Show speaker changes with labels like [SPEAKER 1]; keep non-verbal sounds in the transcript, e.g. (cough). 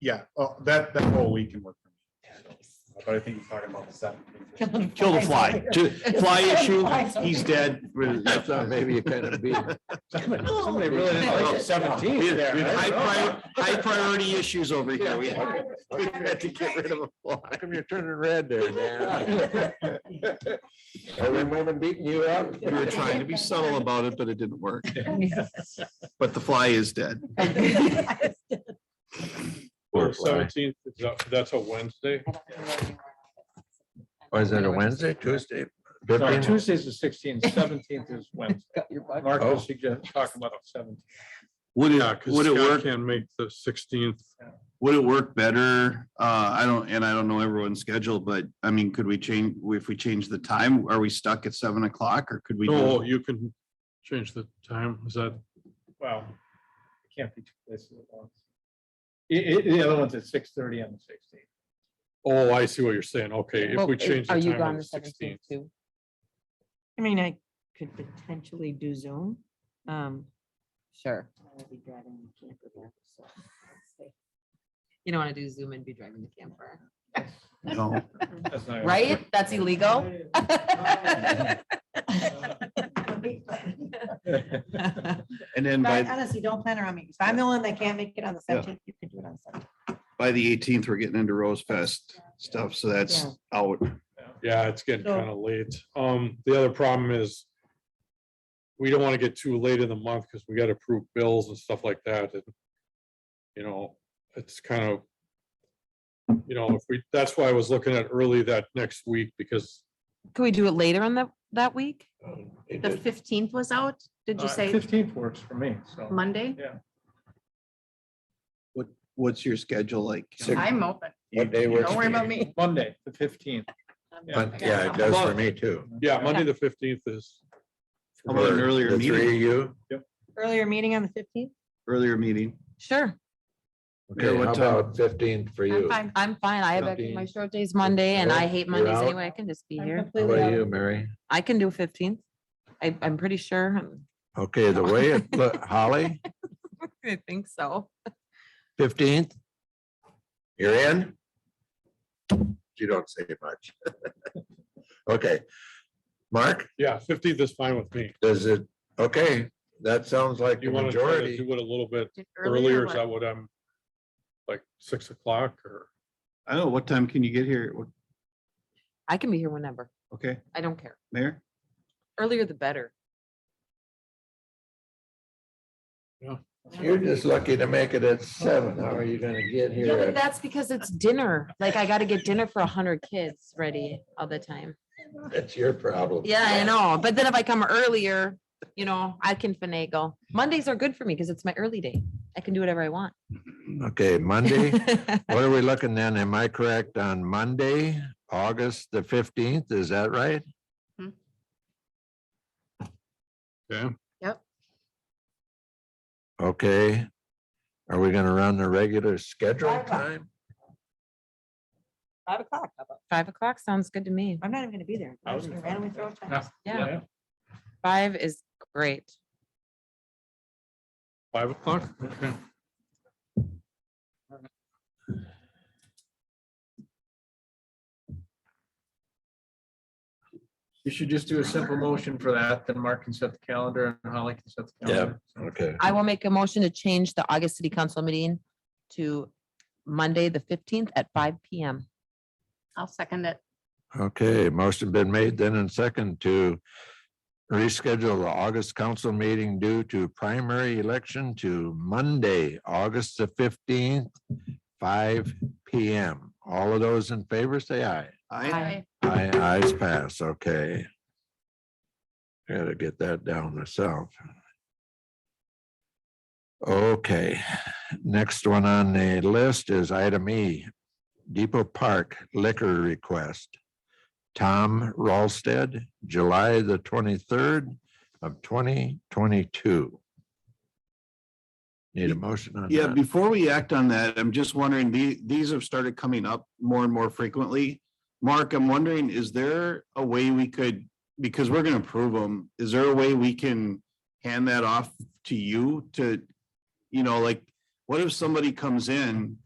[SPEAKER 1] Yeah, oh, that, that whole week can work for me. so. But I think he's talking about the seventeenth.
[SPEAKER 2] Kill the fly, Ju- fly issue, he's dead. (laughs)
[SPEAKER 3] I thought maybe it kind of be.
[SPEAKER 2] Somebody
[SPEAKER 3] really didn't like
[SPEAKER 2] it.
[SPEAKER 4] Seventeen.
[SPEAKER 2] We have- we have
[SPEAKER 4] I
[SPEAKER 2] High
[SPEAKER 4] don't
[SPEAKER 2] (laughs) prior- high priority issues over here. We had we had to get rid of a
[SPEAKER 3] How
[SPEAKER 2] fly.
[SPEAKER 3] come you're turning red there, Dan? Are we moving, beating you up?
[SPEAKER 2] We were trying to be subtle about it, but it didn't work.
[SPEAKER 3] (laughs)
[SPEAKER 2] But the fly is dead.
[SPEAKER 3] Poor fly.
[SPEAKER 5] Seventeenth, that's a Wednesday.
[SPEAKER 3] Or is it a Wednesday, Tuesday?
[SPEAKER 4] Sorry,
[SPEAKER 3] 15?
[SPEAKER 4] Tuesday's the sixteenth, seventeenth is Wednesday. Mark
[SPEAKER 3] Oh.
[SPEAKER 4] was suggesting, talking about seventeenth.
[SPEAKER 2] Would
[SPEAKER 5] Yeah,
[SPEAKER 2] it,
[SPEAKER 5] because
[SPEAKER 2] would it
[SPEAKER 5] Scott
[SPEAKER 2] work,
[SPEAKER 5] can't make the sixteenth.
[SPEAKER 2] would it work better? Uh, I don't, and I don't know everyone's schedule, but I mean, could we change, if we change the time, are we stuck at seven o'clock or could we? do-
[SPEAKER 1] Oh,
[SPEAKER 5] No, you can change the time. Is that,
[SPEAKER 4] Wow. It Can't be two places at once. I- I- the other one's at six thirty on the sixteenth.
[SPEAKER 5] oh, I see what you're saying. Okay, if
[SPEAKER 6] Well,
[SPEAKER 5] we
[SPEAKER 6] i-
[SPEAKER 5] change
[SPEAKER 6] Are
[SPEAKER 5] the
[SPEAKER 6] you
[SPEAKER 5] time
[SPEAKER 6] gone
[SPEAKER 5] on
[SPEAKER 6] the
[SPEAKER 5] the
[SPEAKER 6] seventeenth
[SPEAKER 5] sixteenth.
[SPEAKER 6] too?
[SPEAKER 7] I mean, I could potentially do Zoom. Um,
[SPEAKER 6] Sure.
[SPEAKER 7] I will be driving the camper back, so it's safe. You don't want to do Zoom and be driving the camper,
[SPEAKER 2] No.
[SPEAKER 6] Right? That's
[SPEAKER 4] (laughs)
[SPEAKER 6] illegal?
[SPEAKER 7] (laughs)
[SPEAKER 2] And then
[SPEAKER 8] But
[SPEAKER 2] by,
[SPEAKER 8] honestly, don't plan around me. So I'm the one that can't make it on the
[SPEAKER 2] Yeah.
[SPEAKER 8] seventeenth. You can do it on the seventeenth.
[SPEAKER 2] by the eighteenth, we're getting into Rose Fest stuff, so that's
[SPEAKER 7] Yeah.
[SPEAKER 2] out.
[SPEAKER 5] Yeah, it's getting
[SPEAKER 8] So-
[SPEAKER 5] kind of late. Um, the other problem is we don't want to get too late in the month because we got to approve bills and stuff like that. and, You know, it's kind of, you know, if we, that's why I was looking at early that next week because
[SPEAKER 7] Could we do it later on that, that week?
[SPEAKER 3] It
[SPEAKER 7] The
[SPEAKER 3] did.
[SPEAKER 7] fifteenth was out? Did you say
[SPEAKER 4] Uh, Fifteenth works for me, so.
[SPEAKER 7] Monday?
[SPEAKER 2] What's your schedule like?
[SPEAKER 3] Six.
[SPEAKER 6] I'm open.
[SPEAKER 3] What day works
[SPEAKER 6] Don't
[SPEAKER 3] for
[SPEAKER 6] worry about
[SPEAKER 3] you?
[SPEAKER 6] me.
[SPEAKER 4] Monday, the fifteenth.
[SPEAKER 3] But, yeah, it does for me too.
[SPEAKER 5] Yeah, Monday, the fifteenth is,
[SPEAKER 2] How about an
[SPEAKER 3] For
[SPEAKER 2] earlier
[SPEAKER 3] the Three
[SPEAKER 2] meeting?
[SPEAKER 3] of you?
[SPEAKER 7] (laughs) Earlier meeting on the fifteenth?
[SPEAKER 2] Earlier meeting.
[SPEAKER 7] Sure,
[SPEAKER 3] Okay,
[SPEAKER 2] what
[SPEAKER 3] how
[SPEAKER 2] time?
[SPEAKER 3] about fifteenth for you?
[SPEAKER 6] I'm
[SPEAKER 3] How
[SPEAKER 6] fine. I'm fine. I have,
[SPEAKER 3] Okay.
[SPEAKER 6] my short day's Monday and I
[SPEAKER 3] Well,
[SPEAKER 6] hate
[SPEAKER 3] you're
[SPEAKER 6] Mondays
[SPEAKER 3] out.
[SPEAKER 6] anyway. I can just be here.
[SPEAKER 3] about you, Mary?
[SPEAKER 7] I can do fifteenth. I, I'm pretty sure. um,
[SPEAKER 3] Okay, the way it, (laughs) look, Holly,
[SPEAKER 7] (laughs) I think so.
[SPEAKER 3] fifteenth? You're in? You don't say much. (laughs) Okay. Mark,
[SPEAKER 5] yeah, fifteenth is fine with me.
[SPEAKER 3] does it, okay, that sounds like
[SPEAKER 5] Do
[SPEAKER 3] the
[SPEAKER 5] you want to try to
[SPEAKER 3] majority.
[SPEAKER 5] do it a little bit
[SPEAKER 6] Did
[SPEAKER 5] earlier? Is
[SPEAKER 6] what?
[SPEAKER 5] that what I'm, like, six o'clock or?
[SPEAKER 2] I don't know, Oh, what time can you get here? What-
[SPEAKER 7] I can be here whenever.
[SPEAKER 2] Okay,
[SPEAKER 7] I don't care.
[SPEAKER 2] Mayor?
[SPEAKER 7] Earlier the better.
[SPEAKER 3] You're just lucky to make it at seven. How are you gonna get
[SPEAKER 6] Yeah,
[SPEAKER 3] here?
[SPEAKER 6] but
[SPEAKER 3] at-
[SPEAKER 6] that's because it's dinner. Like I gotta get dinner for a hundred kids ready all the time.
[SPEAKER 3] That's your problem.
[SPEAKER 6] Yeah, I know. But then if I come earlier, you know, I can finagle. Mondays are good for me because it's my early day. I can do whatever I want.
[SPEAKER 3] Okay, (laughs) Monday, what are we looking then? Am I correct on Monday, August the fifteenth? Is that right?
[SPEAKER 5] Yeah.
[SPEAKER 6] Yep.
[SPEAKER 3] Okay. Are we gonna run the regular schedule time?
[SPEAKER 7] Five o'clock. how about-
[SPEAKER 6] (laughs) Five o'clock sounds good to me.
[SPEAKER 8] I'm not even gonna be there.
[SPEAKER 4] I
[SPEAKER 8] I'm
[SPEAKER 4] was
[SPEAKER 8] just gonna
[SPEAKER 4] gonna
[SPEAKER 8] randomly throw
[SPEAKER 4] Yeah.
[SPEAKER 8] times.
[SPEAKER 6] Yeah, five is great.
[SPEAKER 5] Five o'clock? Okay.
[SPEAKER 4] You should just do a simple motion for that, then Mark can set the calendar and Holly can set the
[SPEAKER 3] Yeah.
[SPEAKER 4] calendar.
[SPEAKER 3] Okay,
[SPEAKER 6] I will make a motion to change the August City Council meeting to Monday, the fifteenth at five PM.
[SPEAKER 9] I'll second it.
[SPEAKER 3] okay, motion been made then and second to reschedule the August council meeting due to primary election to Monday, August the fifteenth, five P M. All of those in favor, say aye.
[SPEAKER 2] I,
[SPEAKER 3] Aye, ayes pass, okay. Gotta get that down myself. Okay, next one on the list is item E, Depot Park liquor request. Tom Ralsted, July the twenty-third of twenty twenty-two. Need a motion on
[SPEAKER 2] yeah,
[SPEAKER 3] that?
[SPEAKER 2] before we act on that, I'm just wondering, the, these have started coming up more and more frequently. Mark, I'm wondering, is there a way we could, because we're gonna approve them, is there a way we can hand that off to you to, you know, like, what if somebody comes in